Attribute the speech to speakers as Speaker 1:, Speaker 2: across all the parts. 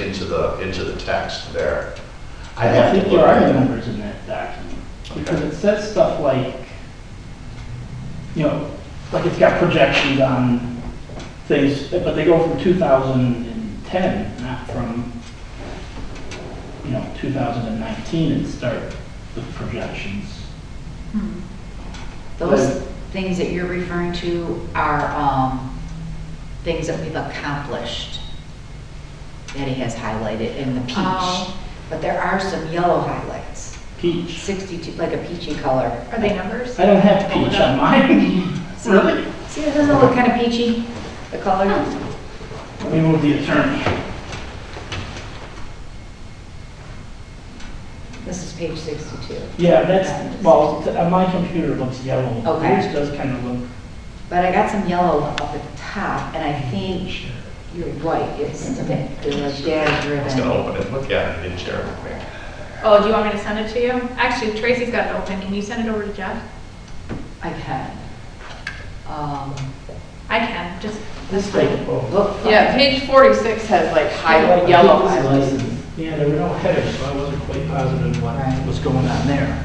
Speaker 1: into the, into the text there. I'd
Speaker 2: I
Speaker 1: have
Speaker 2: think
Speaker 1: to
Speaker 2: there
Speaker 1: look
Speaker 2: are
Speaker 1: at it.
Speaker 2: numbers in that document, because
Speaker 1: Okay.
Speaker 2: it says stuff like, you know, like it's got projections on things, but they go from 2010, not from, you know, 2019 and start the projections.
Speaker 3: Those
Speaker 2: Right.
Speaker 3: things that you're referring to are um, things that we've accomplished that it has highlighted in the peach.
Speaker 4: Oh.
Speaker 3: But there are some yellow highlights,
Speaker 2: Peach.
Speaker 3: 62, like a peachy color.
Speaker 4: Are they numbers?
Speaker 2: I don't have peach on mine.
Speaker 3: Oh,
Speaker 2: Really?
Speaker 3: See, it doesn't look kind of peachy, the color.
Speaker 4: Oh.
Speaker 2: Let me move the attorney.
Speaker 3: This is page 62.
Speaker 2: Yeah, that's, well, t- on my computer it looks yellow.
Speaker 3: Okay.
Speaker 2: Yours does kind of look,
Speaker 3: But I got some yellow up at the top, and I think you're right, it's the data
Speaker 1: I was gonna
Speaker 3: driven.
Speaker 1: open it, look at it, and share it with me.
Speaker 4: Oh, do you want me to send it to you? Actually, Tracy's got it open. Can you send it over to Jeff?
Speaker 3: I can. Um,
Speaker 4: I can, just,
Speaker 3: This
Speaker 2: like,
Speaker 3: way.
Speaker 2: oh.
Speaker 3: Look.
Speaker 5: Yeah, page 46 has like highlight, yellow highlights.
Speaker 2: Yeah, there were no headers, so I wasn't quite positive what
Speaker 3: Right.
Speaker 2: was going on there.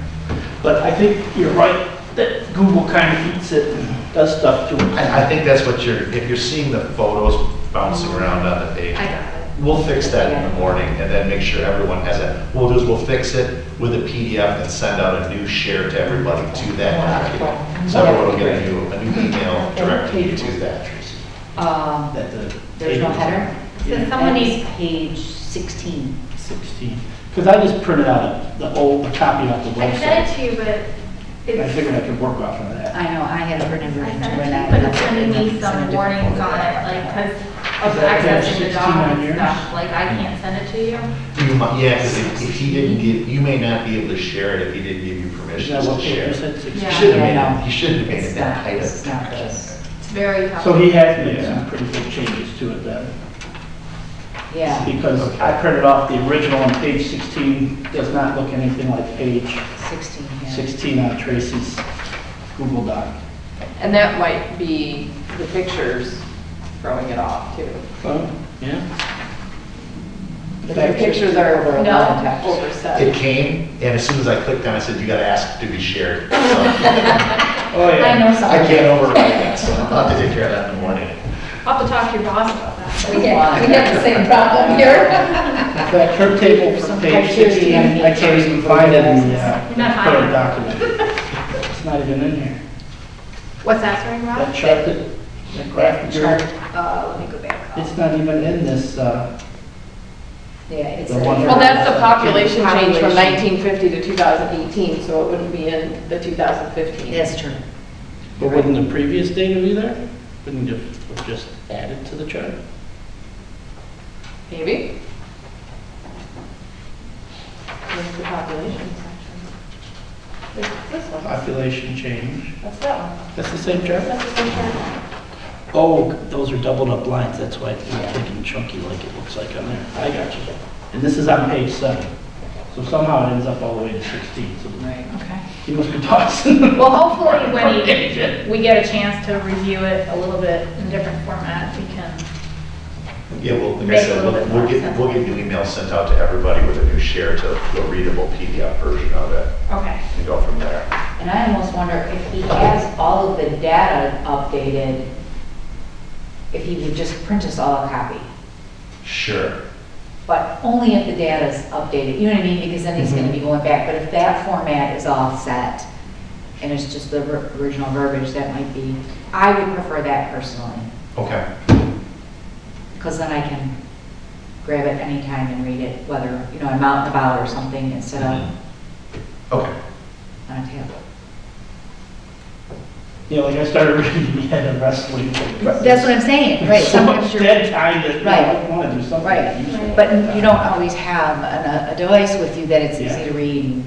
Speaker 2: But I think you're right, that Google kind of eats it and does stuff to it.
Speaker 1: I, I think that's what you're, if you're seeing the photos bouncing around on the page,
Speaker 4: I got it.
Speaker 1: we'll fix that in the morning and then make sure everyone has it. What We'll do is we'll fix it with a PDF and send out a new share to everybody to that document. So everyone will get a new, a new email directly to that.
Speaker 3: Um,
Speaker 2: That the
Speaker 3: There's no
Speaker 2: table-
Speaker 3: header?
Speaker 2: Yeah,
Speaker 4: Someone
Speaker 3: That is
Speaker 4: needs-
Speaker 3: Page 16.
Speaker 2: 16. Because I just printed out the old copy off the
Speaker 4: I sent it
Speaker 2: website.
Speaker 4: to you, but
Speaker 2: I
Speaker 4: it's,
Speaker 2: figured I could work off of that.
Speaker 3: I know, I had a printed
Speaker 4: I
Speaker 3: version
Speaker 4: sent
Speaker 3: too,
Speaker 4: it to
Speaker 3: and I.
Speaker 4: you, but it's gonna need some warnings on it, like, because of
Speaker 2: Is that page
Speaker 4: accessing the
Speaker 2: 16 on
Speaker 4: dog and
Speaker 2: yours?
Speaker 4: stuff. Like, I can't send it to you.
Speaker 1: You might, yeah, because if, if he didn't give, you may not be able to share it if he didn't give you
Speaker 2: Is
Speaker 1: permission
Speaker 2: that
Speaker 1: to
Speaker 2: what
Speaker 1: share.
Speaker 2: you
Speaker 1: He
Speaker 2: said, 16?
Speaker 4: Yeah.
Speaker 1: should have
Speaker 3: Yeah,
Speaker 1: made
Speaker 3: no.
Speaker 1: it, he should have made it
Speaker 3: It's
Speaker 1: that
Speaker 3: not,
Speaker 1: tight.
Speaker 3: this is not this.
Speaker 4: It's very tough.
Speaker 2: So he has made some pretty big changes to it then.
Speaker 3: Yeah,
Speaker 2: Because I printed off the original and page 16 does not look anything like page
Speaker 3: 16, yeah.
Speaker 2: 16 on Tracy's Google Doc.
Speaker 5: And that might be the pictures throwing it off too.
Speaker 2: Oh, yeah.
Speaker 5: The pictures are over a
Speaker 4: No.
Speaker 5: lot of
Speaker 1: It
Speaker 5: overset.
Speaker 1: came, and as soon as I clicked on it, it said, you gotta ask to be shared. So,
Speaker 2: Oh,
Speaker 3: I know
Speaker 1: I
Speaker 3: something.
Speaker 1: can't override that, so I'll have to take care of that in the morning.
Speaker 4: I'll have to talk to your boss about that.
Speaker 3: We have we have the same problem here.
Speaker 2: In fact, her table from
Speaker 3: Some
Speaker 2: page
Speaker 3: criteria
Speaker 2: 16,
Speaker 3: you gotta
Speaker 2: I can't
Speaker 3: meet.
Speaker 2: even find it in the uh,
Speaker 4: You're not
Speaker 2: current
Speaker 4: hiding.
Speaker 2: document. It's not even in here.
Speaker 4: What's that, sorry,
Speaker 2: That
Speaker 4: Rob?
Speaker 2: chart, that- that graph, that
Speaker 3: Chart,
Speaker 2: you're-
Speaker 3: uh, let me go back up.
Speaker 2: it's not even in this, uh,
Speaker 3: Yeah, it's.
Speaker 2: The one-
Speaker 5: Well, that's the population change from
Speaker 3: Population.
Speaker 5: 1950 to 2018, so it wouldn't be in the 2015.
Speaker 3: That's true.
Speaker 2: but wouldn't the previous data be there? Wouldn't it have just added to the chart?
Speaker 5: Maybe? Where's the population section? This this one,
Speaker 2: Population change.
Speaker 5: that's that one.
Speaker 2: That's the same chart?
Speaker 5: That's the same chart.
Speaker 2: Oh, those are doubled up lines, that's why it's not thick and chunky like it looks like on there. I got you. And this is on page seven. So somehow it ends up all the way to 16, so
Speaker 3: Right.
Speaker 4: Okay.
Speaker 2: he must be tossing.
Speaker 4: Well, hopefully, when he- we get a chance to review it a little bit in different format, we can
Speaker 1: Yeah, well, like I
Speaker 4: Make
Speaker 1: said,
Speaker 4: a little
Speaker 1: we'll,
Speaker 4: bit
Speaker 1: we'll
Speaker 4: more
Speaker 1: get,
Speaker 4: sense.
Speaker 1: we'll get new emails sent out to everybody with a new share to a readable PDF version of it
Speaker 4: Okay.
Speaker 1: and go from there.
Speaker 3: And I almost wonder if he has all of the data updated, if he would just print us all a copy.
Speaker 1: Sure.
Speaker 3: But only if the data's updated, you know what I mean, because then he's
Speaker 2: Mm-hmm.
Speaker 3: gonna be going back, but if that format is all set, and it's just the ver- original verbiage, that might be, I would prefer that personally,
Speaker 1: Okay.
Speaker 3: because then I can grab it anytime and read it, whether, you know, I'm out and about or something, instead of
Speaker 2: Mm-hmm.
Speaker 1: Okay.
Speaker 3: on a tablet.
Speaker 2: You know, like I started reading the head of wrestling.
Speaker 3: That's what I'm saying, right,
Speaker 2: So
Speaker 3: sometimes
Speaker 2: much
Speaker 3: you're.
Speaker 2: dead time that, no, I
Speaker 3: Right.
Speaker 2: want to do something.
Speaker 3: Right,
Speaker 2: useful.
Speaker 3: but you don't always have an- a device with you that it's easy
Speaker 2: Yeah.
Speaker 3: to read, and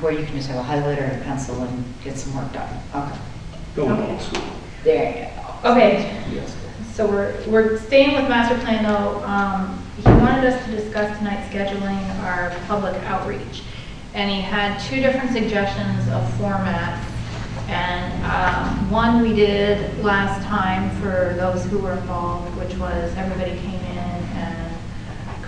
Speaker 3: where you can just have a highlighter and a pencil and get some work done. Okay,
Speaker 2: Go old school.
Speaker 3: there you go.
Speaker 4: Okay. So we're, we're staying with master plan though. Um, He wanted us to discuss tonight scheduling our public outreach. And he had two different suggestions of formats. And um, one we did last time for those who were involved, which was everybody came